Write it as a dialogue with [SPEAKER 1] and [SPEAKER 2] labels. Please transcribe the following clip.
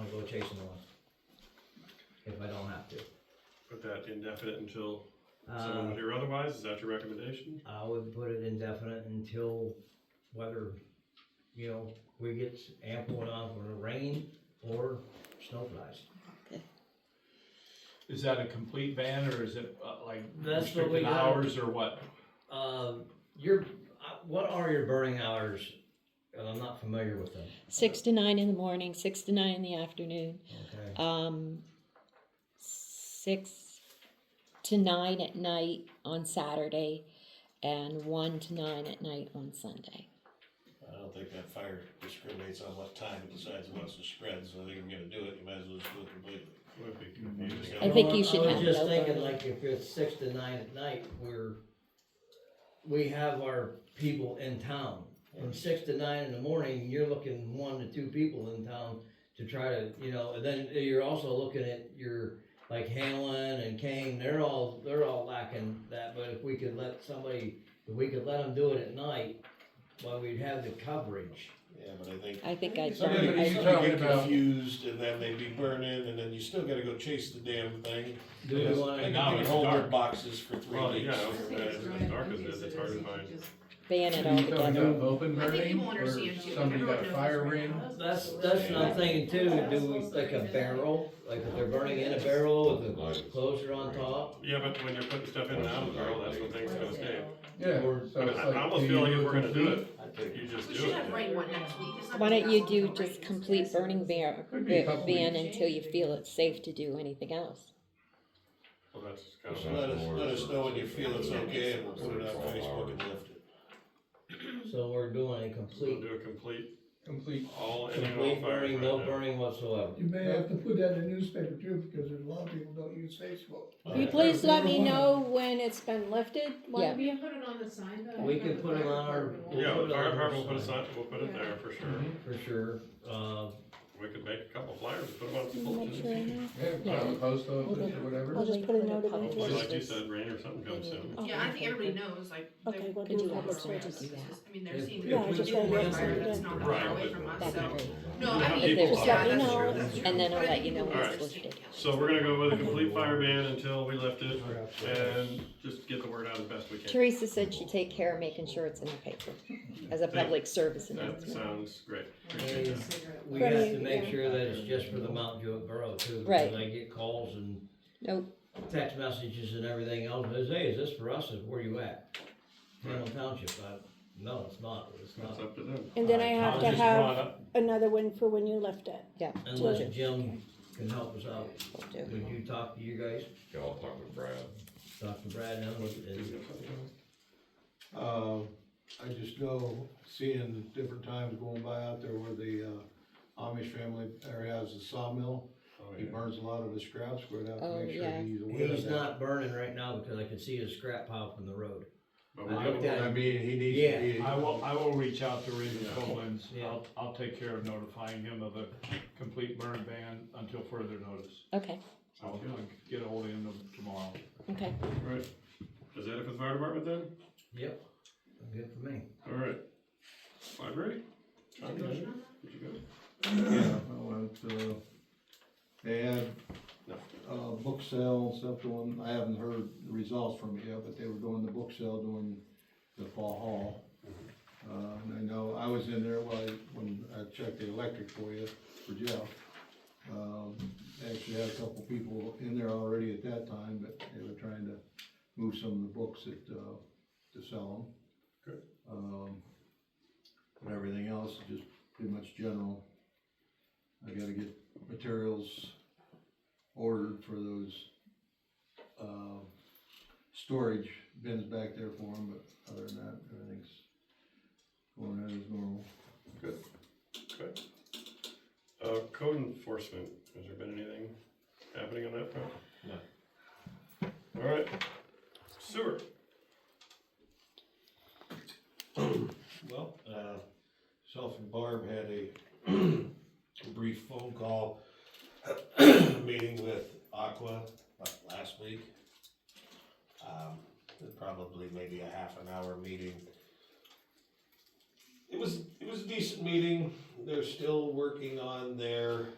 [SPEAKER 1] transportation one. If I don't have to.
[SPEAKER 2] Put that indefinite until someone
[SPEAKER 1] Uh,
[SPEAKER 2] would hear otherwise, is that your recommendation?
[SPEAKER 1] I would put it indefinite until whether, you know, we get ample enough for the rain or snow flies.
[SPEAKER 3] Is that a complete ban or is it uh, like
[SPEAKER 1] That's what we
[SPEAKER 3] restricted
[SPEAKER 1] got.
[SPEAKER 3] hours or what?
[SPEAKER 1] Uh, your, uh, what are your burning hours? And I'm not familiar with them,
[SPEAKER 4] Six to nine in the morning, six to nine in the afternoon,
[SPEAKER 1] okay?
[SPEAKER 4] um, six to nine at night on Saturday, and one to nine at night on Sunday.
[SPEAKER 5] I don't think that fire discriminates on what time it decides it wants to spread, so I think I'm gonna do it, you might as well just do it completely.
[SPEAKER 2] Would be confusing.
[SPEAKER 4] I think
[SPEAKER 1] Well,
[SPEAKER 4] you should
[SPEAKER 1] I
[SPEAKER 4] have
[SPEAKER 1] was
[SPEAKER 4] it
[SPEAKER 1] just
[SPEAKER 4] over.
[SPEAKER 1] thinking, like, if it's six to nine at night, we're, we have our people in town. From six to nine in the morning, you're looking one to two people in town to try to, you know, and then you're also looking at your, like Hanlon and Kane, they're all, they're all lacking that, but if we could let somebody, if we could let them do it at night, well, we'd have the coverage.
[SPEAKER 5] Yeah, but I think.
[SPEAKER 4] I think I'd.
[SPEAKER 5] Somebody,
[SPEAKER 3] but you're
[SPEAKER 5] somebody
[SPEAKER 3] talking
[SPEAKER 5] get
[SPEAKER 3] about-
[SPEAKER 5] confused and then they be burning and then you still gotta go chase the damn thing.
[SPEAKER 1] Do we
[SPEAKER 3] Yes.
[SPEAKER 1] wanna-
[SPEAKER 5] I
[SPEAKER 3] now
[SPEAKER 5] can do
[SPEAKER 3] it's
[SPEAKER 5] homework
[SPEAKER 3] dark.
[SPEAKER 5] boxes for three
[SPEAKER 2] Well, yeah,
[SPEAKER 5] weeks.
[SPEAKER 2] I was
[SPEAKER 6] I think
[SPEAKER 2] gonna
[SPEAKER 6] it's
[SPEAKER 2] ask,
[SPEAKER 6] Ryan
[SPEAKER 2] dark
[SPEAKER 6] who
[SPEAKER 2] as it is,
[SPEAKER 6] uses
[SPEAKER 2] it's
[SPEAKER 6] it,
[SPEAKER 2] hard
[SPEAKER 6] so
[SPEAKER 2] to
[SPEAKER 6] you
[SPEAKER 2] find.
[SPEAKER 6] just-
[SPEAKER 4] Ban it altogether.
[SPEAKER 3] open
[SPEAKER 6] I think you won't understand too. Everyone knows right now.
[SPEAKER 1] That's, that's what I'm thinking too, do we, like a barrel, like if they're burning in a barrel with a closure on top?
[SPEAKER 2] Yeah, but when you're putting stuff in and out of the barrel, that's when things are gonna stay.
[SPEAKER 7] Yeah,
[SPEAKER 1] Or-
[SPEAKER 7] so
[SPEAKER 2] But
[SPEAKER 7] it's
[SPEAKER 2] I
[SPEAKER 7] like,
[SPEAKER 2] I almost
[SPEAKER 7] do
[SPEAKER 2] feel
[SPEAKER 7] you
[SPEAKER 2] like
[SPEAKER 7] do
[SPEAKER 2] if
[SPEAKER 7] it
[SPEAKER 2] we're gonna do
[SPEAKER 7] complete?
[SPEAKER 2] it,
[SPEAKER 5] I think
[SPEAKER 2] you just
[SPEAKER 6] We
[SPEAKER 2] do
[SPEAKER 6] should
[SPEAKER 2] it.
[SPEAKER 6] have rain one next week. It's not
[SPEAKER 4] Why don't
[SPEAKER 6] gonna
[SPEAKER 4] you
[SPEAKER 6] last
[SPEAKER 4] do
[SPEAKER 6] until
[SPEAKER 4] just
[SPEAKER 6] Christmas.
[SPEAKER 4] complete burning ban,
[SPEAKER 7] Could be a couple
[SPEAKER 4] ban
[SPEAKER 7] weeks.
[SPEAKER 4] until you feel it's safe to do anything else?
[SPEAKER 2] Well, that's kind
[SPEAKER 5] Just
[SPEAKER 2] of.
[SPEAKER 5] let us, let us know when you feel it's okay and we'll put it on Facebook and lift it.
[SPEAKER 1] So we're doing a
[SPEAKER 2] We'll
[SPEAKER 1] complete,
[SPEAKER 2] do a complete,
[SPEAKER 3] Complete.
[SPEAKER 2] all, any and all
[SPEAKER 1] complete
[SPEAKER 2] fires
[SPEAKER 1] burning,
[SPEAKER 2] right
[SPEAKER 1] no
[SPEAKER 2] now.
[SPEAKER 1] burning whatsoever.
[SPEAKER 7] You may have to put that in the newspaper too, because there's a lot of people don't use Facebook.
[SPEAKER 4] Will you
[SPEAKER 7] please let me know
[SPEAKER 8] when it's been lifted,
[SPEAKER 4] Yeah.
[SPEAKER 8] Wanda?
[SPEAKER 6] Put it on the sign, but I
[SPEAKER 1] We
[SPEAKER 6] don't know
[SPEAKER 1] could
[SPEAKER 6] if
[SPEAKER 1] put it
[SPEAKER 6] fire
[SPEAKER 1] on our-
[SPEAKER 6] department will.
[SPEAKER 1] We'll
[SPEAKER 2] Yeah,
[SPEAKER 1] put it
[SPEAKER 2] the fire
[SPEAKER 1] on
[SPEAKER 2] department will
[SPEAKER 1] our
[SPEAKER 2] put a
[SPEAKER 1] sign.
[SPEAKER 2] sign, we'll put it there for sure.
[SPEAKER 1] For sure, uh,
[SPEAKER 2] We could make a couple flyers, put them on some
[SPEAKER 4] Make sure I
[SPEAKER 2] bulletin.
[SPEAKER 4] know.
[SPEAKER 7] Yeah, put it on the post office or
[SPEAKER 8] I'll
[SPEAKER 7] whatever.
[SPEAKER 8] just put a note in the
[SPEAKER 2] Hopefully, like you
[SPEAKER 8] Posters.
[SPEAKER 2] said, rain or something comes soon.
[SPEAKER 8] Oh,
[SPEAKER 6] Yeah, I think everybody knows, like,
[SPEAKER 8] Okay,
[SPEAKER 6] they're people
[SPEAKER 8] we'll
[SPEAKER 4] do
[SPEAKER 6] who
[SPEAKER 4] that.
[SPEAKER 6] are
[SPEAKER 4] We'll
[SPEAKER 6] around us.
[SPEAKER 4] do that.
[SPEAKER 6] I mean, they're
[SPEAKER 1] If-
[SPEAKER 6] seeing
[SPEAKER 1] if
[SPEAKER 6] the
[SPEAKER 1] we
[SPEAKER 6] people
[SPEAKER 1] could
[SPEAKER 6] who
[SPEAKER 1] do
[SPEAKER 6] are fire
[SPEAKER 1] that-
[SPEAKER 6] that's not that
[SPEAKER 2] Right,
[SPEAKER 6] far away
[SPEAKER 2] but-
[SPEAKER 6] from us,
[SPEAKER 4] That'd
[SPEAKER 6] so.
[SPEAKER 4] be great.
[SPEAKER 6] No, I mean.
[SPEAKER 2] People
[SPEAKER 4] Just let me
[SPEAKER 6] yeah, that's
[SPEAKER 4] know,
[SPEAKER 6] true, that's true.
[SPEAKER 4] and then
[SPEAKER 6] But
[SPEAKER 4] I'll
[SPEAKER 6] I
[SPEAKER 4] let
[SPEAKER 6] think
[SPEAKER 4] you know
[SPEAKER 6] people
[SPEAKER 4] when
[SPEAKER 2] All
[SPEAKER 4] it's
[SPEAKER 2] right.
[SPEAKER 4] supposed to.
[SPEAKER 2] So we're gonna go with a complete fire ban until we lift it and just get the word out as best we can.
[SPEAKER 4] Teresa said she'd take care of making sure it's in the paper as a public service
[SPEAKER 2] That
[SPEAKER 4] announcement.
[SPEAKER 2] sounds great. Appreciate
[SPEAKER 1] and
[SPEAKER 2] that.
[SPEAKER 1] we have to
[SPEAKER 8] Right,
[SPEAKER 1] make
[SPEAKER 8] yeah.
[SPEAKER 1] sure that it's just for the Mount Jewett Borough too,
[SPEAKER 4] Right.
[SPEAKER 1] because I get calls and
[SPEAKER 4] Nope.
[SPEAKER 1] text messages and everything else, and say, hey, is this for us, Is where you at? Hamilton Township, I, no, it's not, it's
[SPEAKER 2] That's
[SPEAKER 1] not,
[SPEAKER 2] up to them.
[SPEAKER 8] And then I have to
[SPEAKER 2] Just brought
[SPEAKER 8] have
[SPEAKER 2] up-
[SPEAKER 8] another one for when you lift it.
[SPEAKER 4] Yeah,
[SPEAKER 1] unless Jim can help us out.
[SPEAKER 4] we'll do.
[SPEAKER 1] Would you talk to you guys,
[SPEAKER 9] Yeah, I'll talk with Brad.
[SPEAKER 1] Dr. Brad, now, is,
[SPEAKER 10] Uh, I just know, seeing different times going by out there where the, uh, Amish family area has a sawmill.
[SPEAKER 2] Oh,
[SPEAKER 10] He
[SPEAKER 2] yeah.
[SPEAKER 10] burns a lot of his scraps, we're gonna have
[SPEAKER 4] Oh,
[SPEAKER 10] to make sure
[SPEAKER 4] yeah.
[SPEAKER 10] he's aware of
[SPEAKER 1] He's
[SPEAKER 10] that.
[SPEAKER 1] not burning right now because I could see his scrap pile from the road. I
[SPEAKER 2] But we'll
[SPEAKER 1] looked
[SPEAKER 2] do it.
[SPEAKER 1] at
[SPEAKER 10] I mean, he needs
[SPEAKER 1] Yeah.
[SPEAKER 10] to be.
[SPEAKER 3] I will, I will reach out to Raven Collins.
[SPEAKER 1] Yeah.
[SPEAKER 3] I'll, I'll take care of notifying him of a complete burn ban until further notice.
[SPEAKER 4] Okay,
[SPEAKER 3] I'll I'll get ahold of him tomorrow.
[SPEAKER 4] okay.
[SPEAKER 2] Right. Is that it for the fire department then?
[SPEAKER 1] Yep. Good for me.
[SPEAKER 2] All right. Library?
[SPEAKER 6] Did you mention that?
[SPEAKER 2] Did you go?
[SPEAKER 10] Yeah, I went, uh, they had,
[SPEAKER 2] No.
[SPEAKER 10] uh, book sale and stuff going, I haven't heard the results from it yet, but they were doing the book sale during the fall haul. Uh, and I know, I was in there while, I- when I checked the electric for you, for Jeff. Um, actually had a couple people in there already at that time, but they were trying to move some of the books that, uh, to sell them.
[SPEAKER 2] Good.
[SPEAKER 10] Um, and everything else, just pretty much general. I gotta get materials ordered for those, uh, storage bins back there for them, but other than that, everything's going out as normal.
[SPEAKER 2] Good. Good. Uh, code enforcement, has there been anything happening on that front?
[SPEAKER 5] No.
[SPEAKER 2] All right. Sewer.
[SPEAKER 5] Well, uh, self and Barb had a brief phone call meeting with Aqua uh, last week. Um, probably maybe a half an hour meeting. It was, it was a decent meeting. They're still working on their